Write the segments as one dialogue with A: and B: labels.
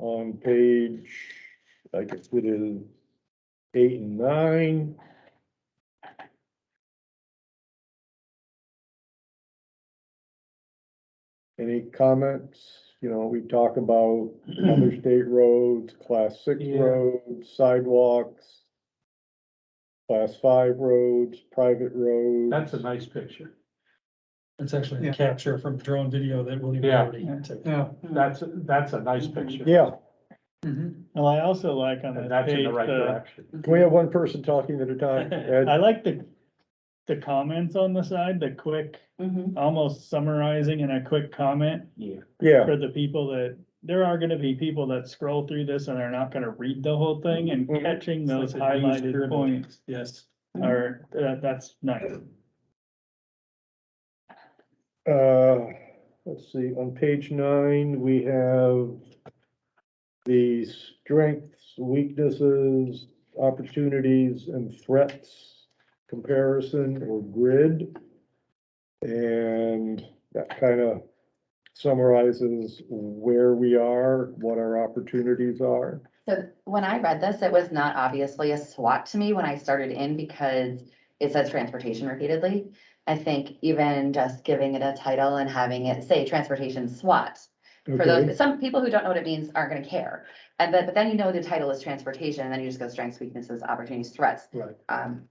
A: on page, I guess it is eight and nine. Any comments? You know, we talk about other state roads, class six
B: Yeah.
A: roads, sidewalks, class five roads, private roads.
B: That's a nice picture.
C: That's actually
D: Yeah.
C: a capture from drone video that William
B: Yeah.
C: Doherty took.
D: Yeah.
B: That's, that's a nice picture.
A: Mm-hmm. Yeah,
D: Mhm.
E: Well, I also like on
B: And
E: that
B: that's in
E: page,
B: the right
A: uh,
E: the,
B: direction.
A: can we have one person talking at a time? Ed?
E: I like the, the comments on the side, the quick, almost summarizing in a quick comment
B: Yeah.
A: Yeah,
E: for the people that, there are gonna be people that scroll through this and are not gonna read the whole thing and
A: Mhm.
E: catching
C: It's like
E: those
C: the news
E: highlighted
C: dribble.
E: points
C: Yes.
E: are, that, that's nice.
A: uh, let's see, on page nine, we have the strengths, weaknesses, opportunities and threats comparison or grid. And that kind of summarizes where we are, what our opportunities are.
F: So when I read this, it was not obviously a SWAT to me when I started in because it says transportation repeatedly. I think even just giving it a title and having it say transportation SWAT. For
A: Okay,
F: those, some people who don't know what it means aren't gonna care. And but, but then you know the title is transportation and then you just go strengths, weaknesses, opportunities, threats.
B: Right.
F: Um,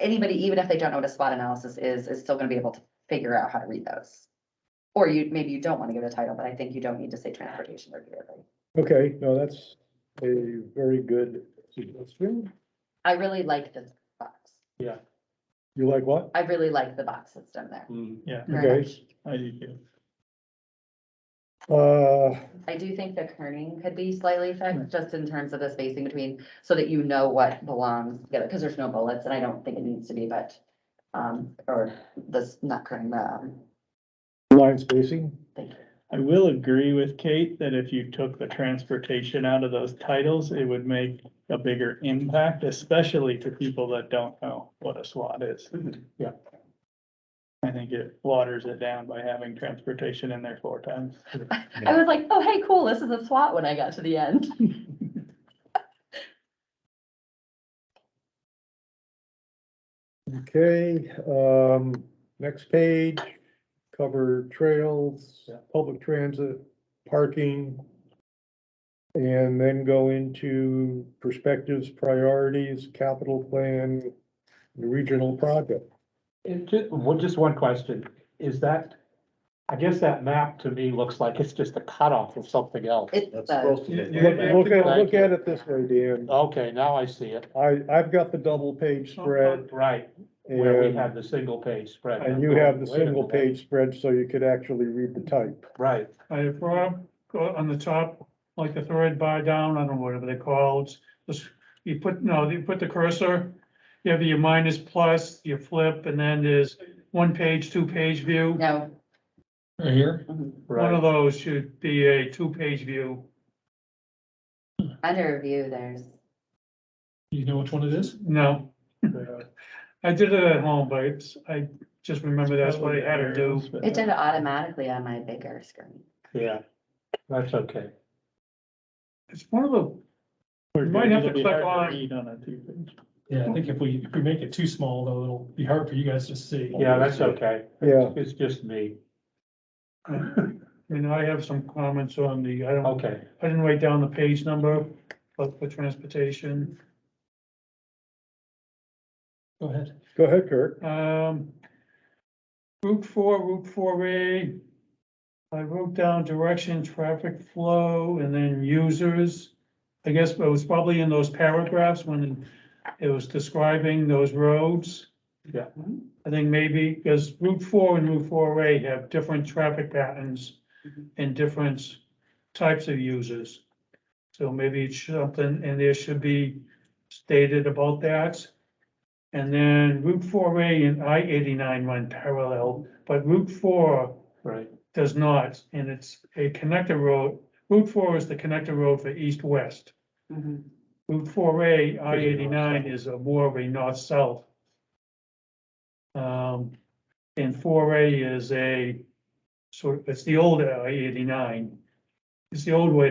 F: Anybody, even if they don't know what a SWOT analysis is, is still gonna be able to figure out how to read those. Or you, maybe you don't wanna give it a title, but I think you don't need to say transportation repeatedly.
A: okay, no, that's a very good suggestion.
F: I really like this box.
A: You like what?
F: I really like the box system there.
B: Mm.
E: Yeah,
F: very
A: Okay.
F: much.
E: I do too.
A: Uh,
F: I do think the kerning could be slightly affected, just in terms of the spacing between, so that you know what belongs together, because there's no bullets, and I don't think it needs to be, but. Um, or this, not kerning, the, um,
A: line spacing,
F: thank you.
E: I will agree with Kate that if you took the transportation out of those titles, it would make a bigger impact, especially to people that don't know what a SWAT is.
B: Yeah.
E: I think it waters it down by having transportation in there four times.
F: I was like, oh, hey, cool, this is a SWAT when I got to the end.
A: okay, um, next page, cover trails,
B: Yeah.
A: public transit, parking. And then go into perspectives, priorities, capital plan, regional project.
B: And ju- well, just one question, is that, I guess that map to me looks like it's just a cutoff of something else.
F: It's, uh,
A: Look, look at,
B: Thank
A: look
B: you.
A: at it this way, Dan,
B: Okay, now I see it.
A: I, I've got the double page spread
B: Right, where we have
A: and,
B: the single page spread.
A: and you have the
B: Wait a
A: single
B: minute.
A: page spread, so you could actually read the type.
B: Right,
D: I brought up, go on the top, like the third bar down, I don't know whatever they call it. this- You put, no, you put the cursor, you have your minus plus, you flip, and then there's one page, two page view.
F: no.
C: Right here?
F: mhm.
D: One
B: right.
D: of those should be a two page view.
F: Under review, there's,
C: You know which one it is?
D: No, I did it at home, but it's, I just remember that's what I had to do.
F: it did it automatically on my bigger screen.
B: Yeah, that's okay.
D: It's one of the,
E: You
D: might have to click on-
E: Read on a two-page.
C: Yeah, I think if we, if we make it too small though, it'll be hard for you guys to see.
B: Yeah, that's okay.
A: Yeah,
B: It's just me.
D: I mean, I have some comments on the, I don't,
B: Okay,
D: I didn't write down the page number, but for transportation.
C: Go ahead.
A: go ahead, Kirk.
D: Um, Route four, Route four A. I wrote down direction, traffic flow, and then users. I guess it was probably in those paragraphs when it was describing those roads.
B: Yeah.
D: I think maybe, because Route four and Route four A have different traffic patterns and different types of users. So maybe it's something, and there should be stated about that. And then Route four A and I eighty-nine run parallel, but Route four
B: right,
D: does not, and it's a connector road. Route four is the connector road for east-west.
F: Mhm.
D: Route four A, I
B: Pretty
D: eighty-nine
B: north-south.
D: is a more of a north-south. Um, and four A is a, sort of, it's the old I eighty-nine. It's the old way to